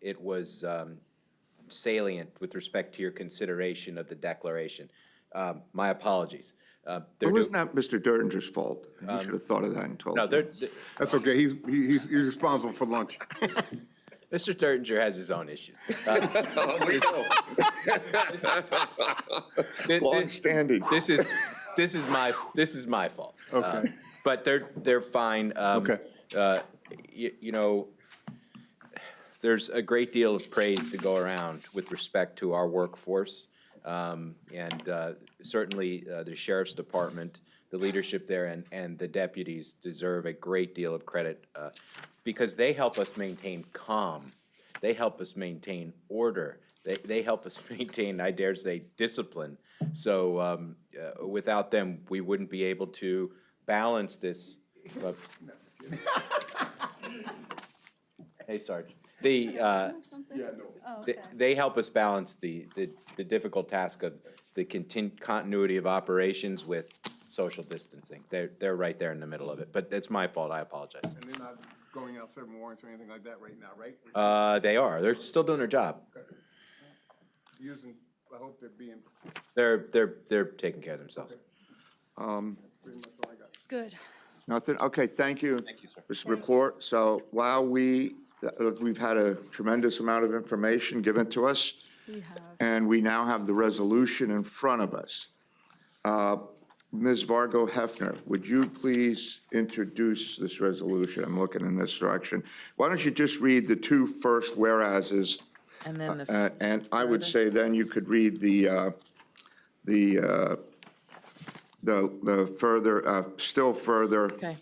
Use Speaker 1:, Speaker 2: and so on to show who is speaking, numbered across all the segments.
Speaker 1: it was um, salient with respect to your consideration of the declaration. Um, My apologies. Uh, they're
Speaker 2: Well, it's
Speaker 1: do-
Speaker 2: not Mr. Dertinger's fault. You should have thought of that and told
Speaker 1: Um, No,
Speaker 2: him.
Speaker 1: they're, th-
Speaker 3: That's okay, he's, he- he's, he's responsible for lunch.
Speaker 1: Mr. Dertinger has his own issues. Uh, Th- th-
Speaker 2: Longstanding.
Speaker 1: This is, this is my, this is my fault. Okay. But they're, they're fine. Um,
Speaker 3: Okay.
Speaker 1: uh, y- You know, there's a great deal of praise to go around with respect to our workforce. Um, And uh, certainly, uh, the sheriff's department, the leadership there, and, and the deputies deserve a great deal of credit uh, because they help us maintain calm. They help us maintain order. They, they help us maintain, I dare say, discipline. So um, uh, without them, we wouldn't be able to balance this. uh, Hey, Sarge. The, uh,
Speaker 4: something? Yeah, no. Oh,
Speaker 1: th-
Speaker 4: okay.
Speaker 1: they help us balance the, the, the difficult task of the contin- continuity of operations with social distancing. They're, they're right there in the middle of it, but it's my fault, I apologize.
Speaker 3: And they're not going out serving warrants or anything like that right now, right?
Speaker 1: Uh, they are, they're still doing their job.
Speaker 3: Using, I hope they're being,
Speaker 1: They're, they're, they're taking care of themselves.
Speaker 3: pretty much all I got.
Speaker 4: Good.
Speaker 2: Nothing, okay, thank you.
Speaker 1: Thank you, sir.
Speaker 2: This report, so while we, uh, we've had a tremendous amount of information given to us,
Speaker 4: We have,
Speaker 2: and we now have the resolution in front of us. Uh, Ms. Vargo Hefner, would you please introduce this resolution? I'm looking in this direction. Why don't you just read the two first whereases?
Speaker 5: And then the.
Speaker 2: Uh, And I would say then you could read the, uh, the, uh, the the further, uh, still further
Speaker 5: Okay.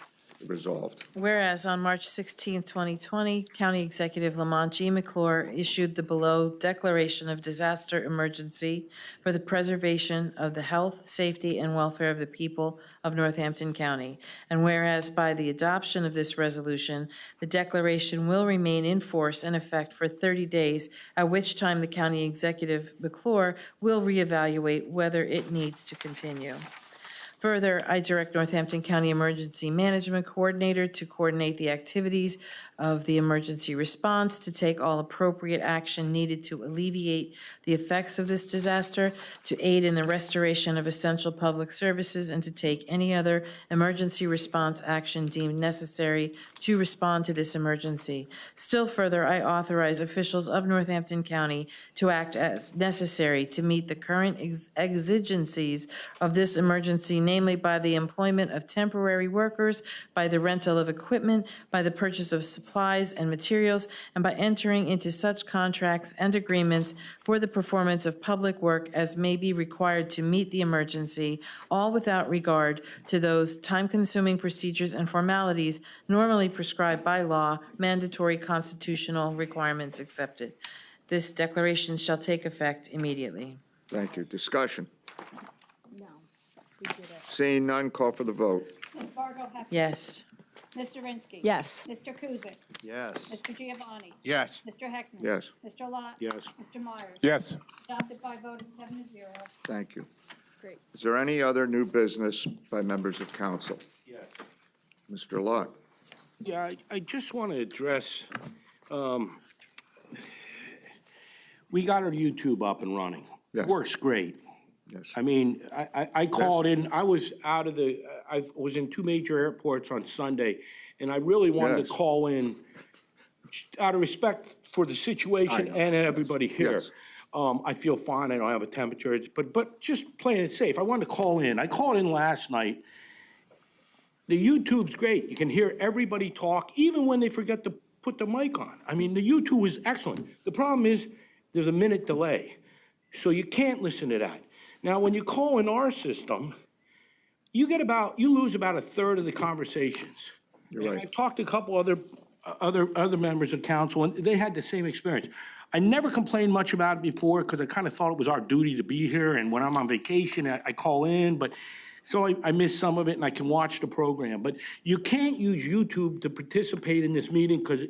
Speaker 2: resolved.
Speaker 5: Whereas on March 16, 2020, County Executive Lamont G. McClure issued the below declaration of disaster emergency for the preservation of the health, safety, and welfare of the people of Northampton County. And whereas by the adoption of this resolution, the declaration will remain in force and effect for 30 days, at which time the County Executive McClure will reevaluate whether it needs to continue. Further, I direct Northampton County Emergency Management Coordinator to coordinate the activities of the emergency response, to take all appropriate action needed to alleviate the effects of this disaster, to aid in the restoration of essential public services, and to take any other emergency response action deemed necessary to respond to this emergency. Still further, I authorize officials of Northampton County to act as necessary to meet the current ex- exigencies of this emergency, namely by the employment of temporary workers, by the rental of equipment, by the purchase of supplies and materials, and by entering into such contracts and agreements for the performance of public work as may be required to meet the emergency, all without regard to those time-consuming procedures and formalities normally prescribed by law, mandatory constitutional requirements accepted. This declaration shall take effect immediately.
Speaker 2: Thank you. Discussion.
Speaker 4: no, we did it.
Speaker 2: Seeing none, call for the vote.
Speaker 6: Ms. Fargo Hefner.
Speaker 5: Yes.
Speaker 6: Mr. Rinsky.
Speaker 7: Yes.
Speaker 6: Mr. Kuzic.
Speaker 2: Yes.
Speaker 6: Mr. Giovanni.
Speaker 3: Yes.
Speaker 6: Mr. Heckman.
Speaker 2: Yes.
Speaker 6: Mr. Lot.
Speaker 3: Yes.
Speaker 6: Mr. Myers.
Speaker 3: Yes.
Speaker 6: Adopted by a vote of seven to zero.
Speaker 2: Thank you.
Speaker 4: great.
Speaker 2: Is there any other new business by members of council? Yes. Mr. Lot?
Speaker 8: Yeah, I, I just want to address, um, we got our YouTube up and running.
Speaker 2: Yes.
Speaker 8: Works great.
Speaker 2: Yes.
Speaker 8: I mean, I, I, I called in, I was out of the, I was in two major airports on Sunday, and I really wanted to
Speaker 2: Yes.
Speaker 8: call in just out of respect for the situation and everybody here.
Speaker 2: Yes.
Speaker 8: Um, I feel fine, I don't have a temperature, it's- but, but just playing it safe, I wanted to call in. I called in last night, the YouTube's great. You can hear everybody talk, even when they forget to put the mic on. I mean, the YouTube is excellent. The problem is, there's a minute delay, so you can't listen to that. Now, when you call in our system, you get about, you lose about a third of the conversations. You're
Speaker 2: right.
Speaker 8: I've talked to a couple other, other, other members of council, and they had the same experience. I never complained much about it before, because I kind of thought it was our duty to be here, and when I'm on vacation, I, I call in, but, so I, I miss some of it, and I can watch the program. But you can't use YouTube to participate in this meeting, because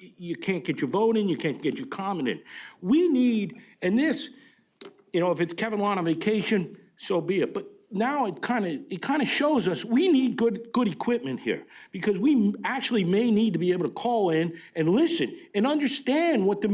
Speaker 8: you can't get your vote in, you can't get your comment in. We need, and this, you know, if it's Kevin Lawn on vacation, so be it. But now it kind of, it kind of shows us, we need good, good equipment here because we actually may need to be able to call in and listen and understand what the